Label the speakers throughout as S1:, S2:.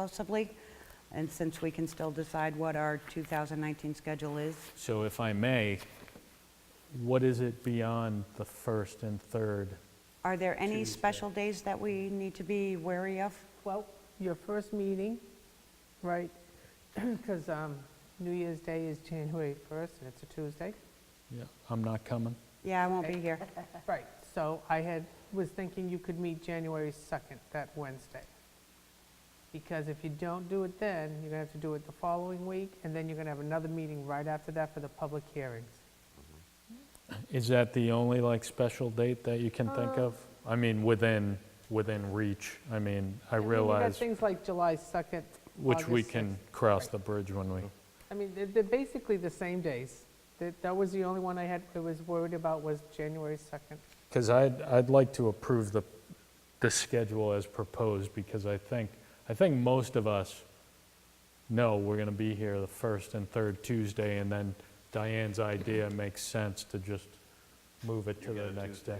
S1: possibly, and since we can still decide what our 2019 schedule is.
S2: So if I may, what is it beyond the first and third?
S1: Are there any special days that we need to be wary of?
S3: Well, your first meeting, right, because New Year's Day is January 1st, and it's a Tuesday.
S2: Yeah, I'm not coming.
S1: Yeah, I won't be here.
S3: Right, so I had, was thinking you could meet January 2nd, that Wednesday. Because if you don't do it then, you're going to have to do it the following week, and then you're going to have another meeting right after that for the public hearings.
S2: Is that the only, like, special date that you can think of? I mean, within, within reach. I mean, I
S3: mean, you got
S2: realize,
S3: things like July 2nd.
S2: which we
S3: August 6th.
S2: can cross the bridge when we,
S3: I mean, they're- they're basically the same days. That that was the only one I had, I was worried about was January 2nd.
S2: because I'd, I'd like to approve the, the schedule as proposed, because I think, I think most of us know we're going to be here the first and third Tuesday, and then Diane's idea makes sense to just move it to the next day.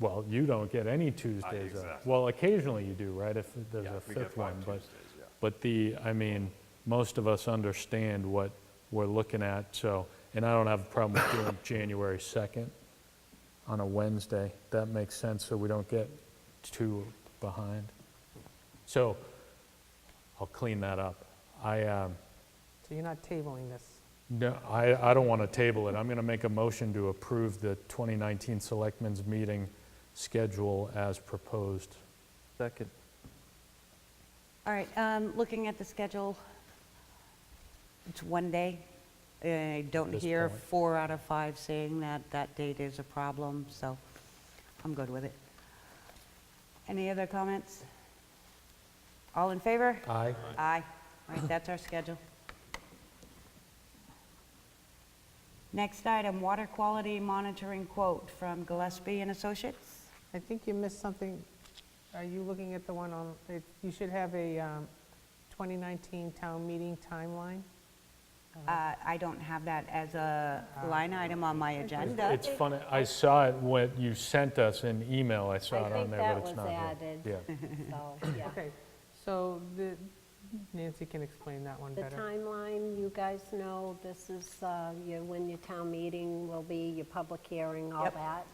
S2: Well, you don't get any Tuesdays off.
S4: exactly.
S2: Well, occasionally you do, right, if there's
S4: Yeah,
S2: a
S4: we get
S2: fifth
S4: five
S2: one, but,
S4: Tuesdays, yeah.
S2: but the, I mean, most of us understand what we're looking at, so, and I don't have a problem with doing January 2nd on a Wednesday. That makes sense, so we don't get too behind. So, I'll clean that up. I, um,
S3: So you're not tabling this.
S2: no, I, I don't want to table it. I'm going to make a motion to approve the 2019 Selectmen's Meeting schedule as proposed.
S5: Second.
S1: All right, um, looking at the schedule, it's one day. I don't
S2: At this
S1: hear
S2: point.
S1: four out of five saying that that date is a problem, so I'm good with it. Any other comments? All in favor?
S2: Aye.
S1: Aye. All right, that's our schedule. Next item, water quality monitoring quote from Gillespie and Associates.
S3: I think you missed something. Are you looking at the one on, it- you should have a um, 2019 town meeting timeline?
S1: Uh, I don't have that as a line item on my agenda.
S2: It's funny, I saw it when you sent us an email, I saw
S6: I
S2: it on
S6: think
S2: there,
S6: that
S2: but it's
S6: was
S2: not here.
S6: added.
S2: Yeah.
S6: So, yeah.
S3: Okay, so the- Nancy can explain that one
S6: The
S3: better.
S6: timeline, you guys know, this is uh, your, when your town meeting will be, your public hearing, all
S1: Yep.
S6: that.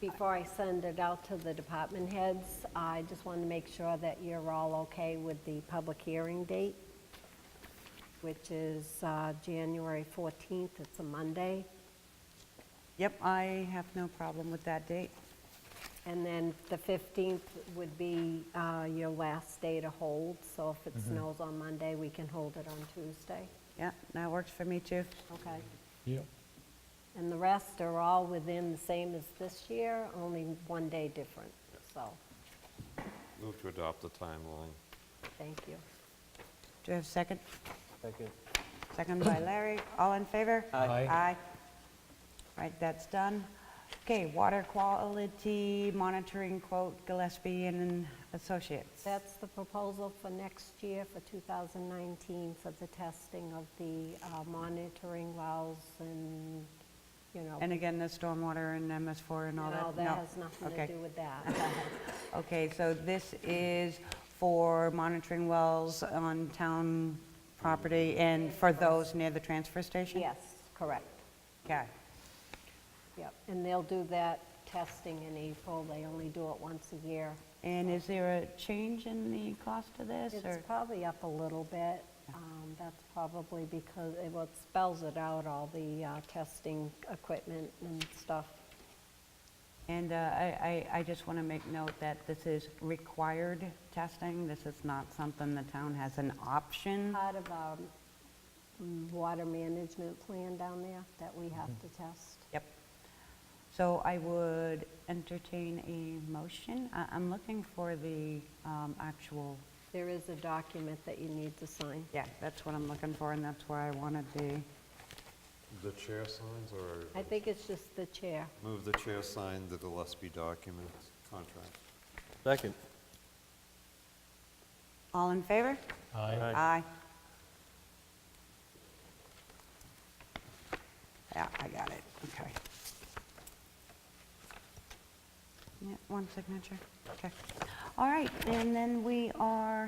S6: Before I send it out to the department heads, I just want to make sure that you're all okay with the public hearing date, which is uh, January 14th, it's a Monday.
S1: Yep, I have no problem with that date.
S6: And then the 15th would be uh, your last day to hold, so if it snows on Monday, we can hold it on Tuesday,
S1: Yep, that works for me too.
S6: okay?
S2: Yeah.
S6: And the rest are all within the same as this year, only one day different, so,
S4: Move to adopt the timeline.
S6: thank you.
S1: Do you have a second?
S5: Second.
S1: Second by Larry. All in favor?
S2: Aye.
S1: Aye. All right, that's done. Okay, water quality monitoring quote Gillespie and Associates.
S6: That's the proposal for next year, for 2019, for the testing of the uh, monitoring wells and, you know.
S1: And again, the stormwater and MS4 and all that?
S6: No, that has nothing
S1: Okay.
S6: to do with that.
S1: Okay, so this is for monitoring wells on town property and for those near the transfer station?
S6: Yes, correct,
S1: Okay,
S6: yep. And they'll do that testing in April, they only do it once a year.
S1: and is there a change in the cost of this,
S6: It's
S1: or?
S6: probably up a little bit. Um, That's probably because, it- well, it spells it out, all the uh, testing equipment and stuff.
S1: And uh, I, I I just want to make note that this is required testing, this is not something the town has an option.
S6: Part of our mm, water management plan down there that we have to test.
S1: Yep. So I would entertain a motion. I- I'm looking for the um, actual
S6: There is a document that you need to sign.
S1: Yeah, that's what I'm looking for, and that's where I wanted the,
S4: The chair signs
S6: I
S4: or
S6: think it's just the chair.
S4: move the chair sign the Gillespie document contract?
S5: Second.
S1: all in favor?
S2: Aye.
S1: Aye. Yeah, I got it, okay. Yeah, one signature, okay. All right, and then we are